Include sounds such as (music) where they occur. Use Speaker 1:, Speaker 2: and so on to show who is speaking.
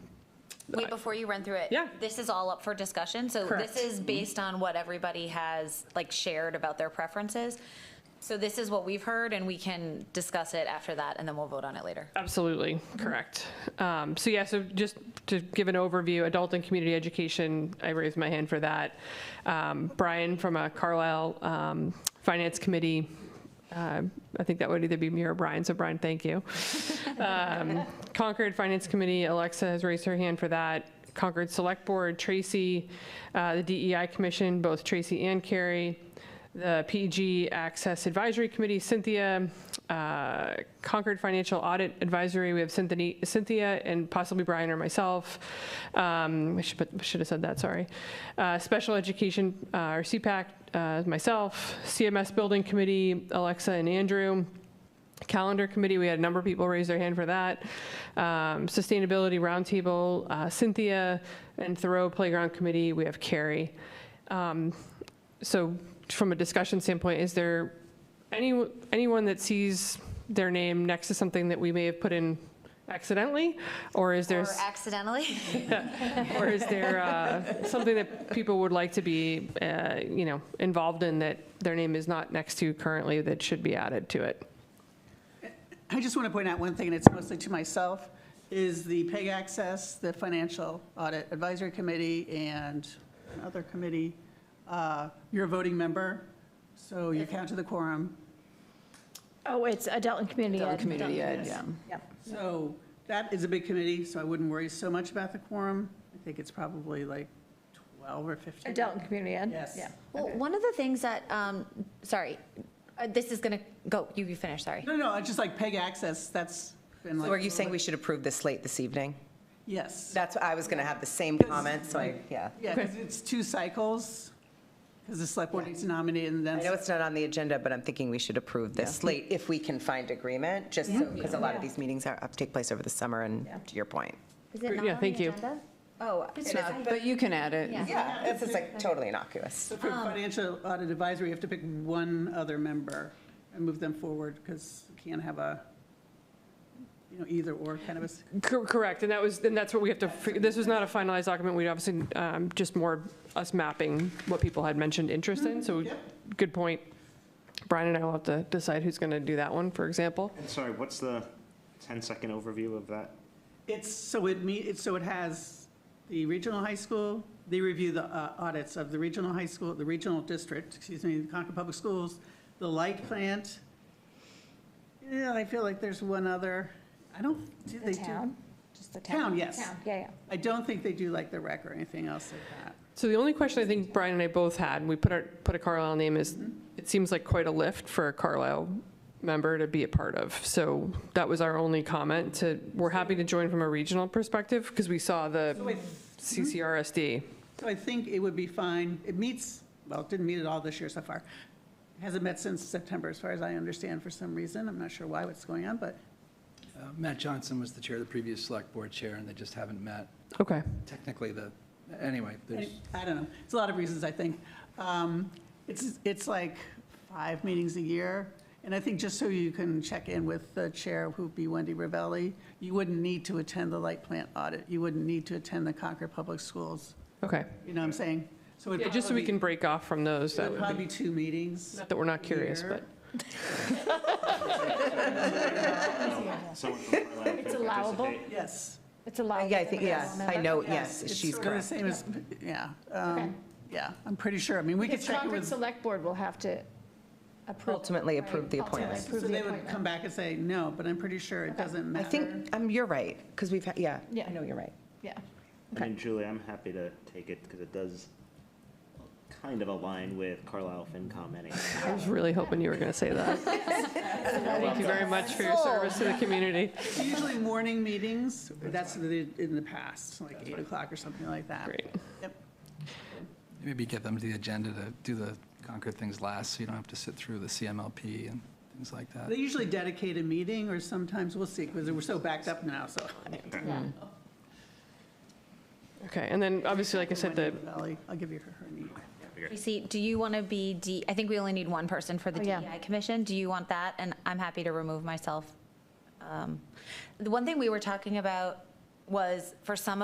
Speaker 1: Wait, before you run through it.
Speaker 2: Yeah.
Speaker 1: This is all up for discussion, so
Speaker 2: Correct. Mm-hmm.
Speaker 1: this is based on what everybody has, like, shared about their preferences. So this is what we've heard, and we can discuss it after that, and then we'll vote on it later.
Speaker 2: Absolutely, correct. Um, So yeah, so just to give an overview, adult and community education, I raised my hand for that. Um, Brian from a Carlisle um, Finance Committee, uh, I think that would either be me or Brian, so Brian, thank you. Um, Concord Finance Committee, Alexa has raised her hand for that. Concord Select Board, Tracy, uh, the DEI Commission, both Tracy and Carrie, the PEG Access Advisory Committee, Cynthia, uh, Concord Financial Audit Advisory, we have Cynthia, Cynthia and possibly Brian or myself. Um, I should, put- should have said that, sorry. Uh, Special Education, uh, or CPAC, uh, myself, CMS Building Committee, Alexa and Andrew. Calendar Committee, we had a number of people raise their hand for that. Um, Sustainability Roundtable, uh, Cynthia, and Thoreau Playground Committee, we have Carrie. Um, So from a discussion standpoint, is there any, anyone that sees their name next to something that we may have put in accidentally? Or is there,
Speaker 1: Or
Speaker 2: (laughs)
Speaker 1: accidentally.
Speaker 2: or is there uh, something that people would like to be, uh, you know, involved in that their name is not next to currently that should be added to it?
Speaker 3: I just want to point out one thing, and it's mostly to myself, is the PEG Access, the Financial Audit Advisory Committee, and another committee, uh, you're a voting member, so you count to the quorum.
Speaker 4: Oh, it's adult and community ed.
Speaker 5: Adult and community ed, yeah.
Speaker 4: Yep.
Speaker 3: So that is a big committee, so I wouldn't worry so much about the quorum. I think it's probably like 12 or 15.
Speaker 4: Adult and community ed.
Speaker 3: Yes.
Speaker 4: Yeah.
Speaker 1: Well, one of the things that, um, sorry, uh, this is gonna, go, you, you finish, sorry.
Speaker 3: No, no, it's just like PEG Access, that's been like.
Speaker 5: So are you saying we should approve this late this evening?
Speaker 3: Yes.
Speaker 5: That's, I was going to have the same comment, so I, yeah.
Speaker 3: Yeah, because it's two cycles, because the select board needs to nominate, and then.
Speaker 5: I know it's not on the agenda, but I'm thinking we should approve this late if we can find agreement, just so, because a lot of these meetings are, take place over the summer, and to your point.
Speaker 1: Is
Speaker 2: Great, not yeah, on the thank you.
Speaker 5: Oh,
Speaker 1: It's not,
Speaker 5: but you can add
Speaker 1: Yeah.
Speaker 5: it. Yeah, it's just like totally innocuous.
Speaker 3: So for
Speaker 4: Um,
Speaker 3: financial audit advisory, you have to pick one other member and move them forward because you can't have a, you know, either or kind of a. s-
Speaker 2: Cor- Correct, and that was, and that's what we have to, fi- this was not a finalized document, we'd obviously, um, just more us mapping what people had mentioned interest in, so,
Speaker 3: Yep.
Speaker 2: good point. Brian and I will have to decide who's going to do that one, for example.
Speaker 6: And sorry, what's the 10-second overview of that?
Speaker 3: It's, so it meet, it's, so it has the regional high school, they review the uh, audits of the regional high school, the regional district, excuse me, the Concord Public Schools, the light plant. Yeah, I feel like there's one other, I don't, do they
Speaker 4: The
Speaker 3: do?
Speaker 4: town, just the town.
Speaker 3: Town, yes.
Speaker 4: Town, Yeah, yeah.
Speaker 3: I don't think they do like the rec or anything else like that.
Speaker 2: So the only question I think Brian and I both had, and we put our, put a Carlisle name, is, it seems like quite a lift for a Carlisle member to be a part of, so that was our only comment, to, we're happy to join from a regional perspective, because we saw
Speaker 3: So I
Speaker 2: the CCRSD.
Speaker 3: So I think it would be fine, it meets, well, it didn't meet at all this year so far. It Hasn't met since September, as far as I understand, for some reason, I'm not sure why, what's going on, but
Speaker 7: Uh, Matt Johnson was the chair, the previous select board chair, and they just haven't met.
Speaker 2: Okay.
Speaker 7: Technically, the, anyway,
Speaker 3: I
Speaker 7: there's,
Speaker 3: I don't know, it's a lot of reasons, I think. Um, It's, it's like five meetings a year, and I think just so you can check in with the chair, who'd be Wendy Ravelli, you wouldn't need to attend the light plant audit, you wouldn't need to attend the Concord Public Schools,
Speaker 2: Okay,
Speaker 3: you know what I'm saying? So it'd
Speaker 2: yeah, just so we
Speaker 3: probably-
Speaker 2: can break off from those, that
Speaker 3: It'd
Speaker 2: would
Speaker 3: probably
Speaker 2: be,
Speaker 3: be two meetings.
Speaker 2: not that we're not curious,
Speaker 3: Here.
Speaker 2: but.
Speaker 6: Someone from
Speaker 4: (laughs)
Speaker 6: Carlisle can
Speaker 4: It's allowable.
Speaker 6: participate.
Speaker 3: Yes.
Speaker 4: It's allowed.
Speaker 5: Uh, Yeah, I think, yes, I know, yes,
Speaker 3: It's
Speaker 5: she's
Speaker 3: sort of the
Speaker 5: correct.
Speaker 3: same as, yeah, um,
Speaker 4: Okay.
Speaker 3: yeah, I'm pretty sure. I mean, we could
Speaker 4: Because
Speaker 3: check it
Speaker 4: Concord
Speaker 3: with, so
Speaker 4: Select Board will have to approve.
Speaker 5: Ultimately approve the
Speaker 4: Right, ultimately
Speaker 5: appointment.
Speaker 4: approve the
Speaker 3: they would
Speaker 4: appointment.
Speaker 3: come back and say, no, but I'm pretty sure it doesn't
Speaker 5: I
Speaker 3: matter.
Speaker 5: (laughs) think, um, you're right, because we've, had yeah,
Speaker 4: Yeah.
Speaker 5: I know you're right.
Speaker 4: Yeah.
Speaker 6: I mean, Julie, I'm happy to take it because it does kind of align with Carlisle FinCom anyway.
Speaker 2: I was really hoping you were going to say that. Thank you very much for your service to the community.
Speaker 3: It's usually morning meetings, that's what they did in the past, like 8 o'clock or something like that.
Speaker 2: Great.
Speaker 3: Yep.
Speaker 7: maybe get them to the agenda to do the Concord things last, so you don't have to sit through the CMLP and things like that.
Speaker 3: They usually dedicate a meeting, or sometimes, we'll see, because we're so backed up now, so.
Speaker 2: Okay, and then obviously, like I said, the,
Speaker 3: Valley, I'll give you her her name.
Speaker 1: Tracy, do you want to be D, I think we only need one person for the
Speaker 4: Oh, yeah.
Speaker 1: DEI Commission. Do you want that? And I'm happy to remove myself. Um, The one thing we were talking about was for some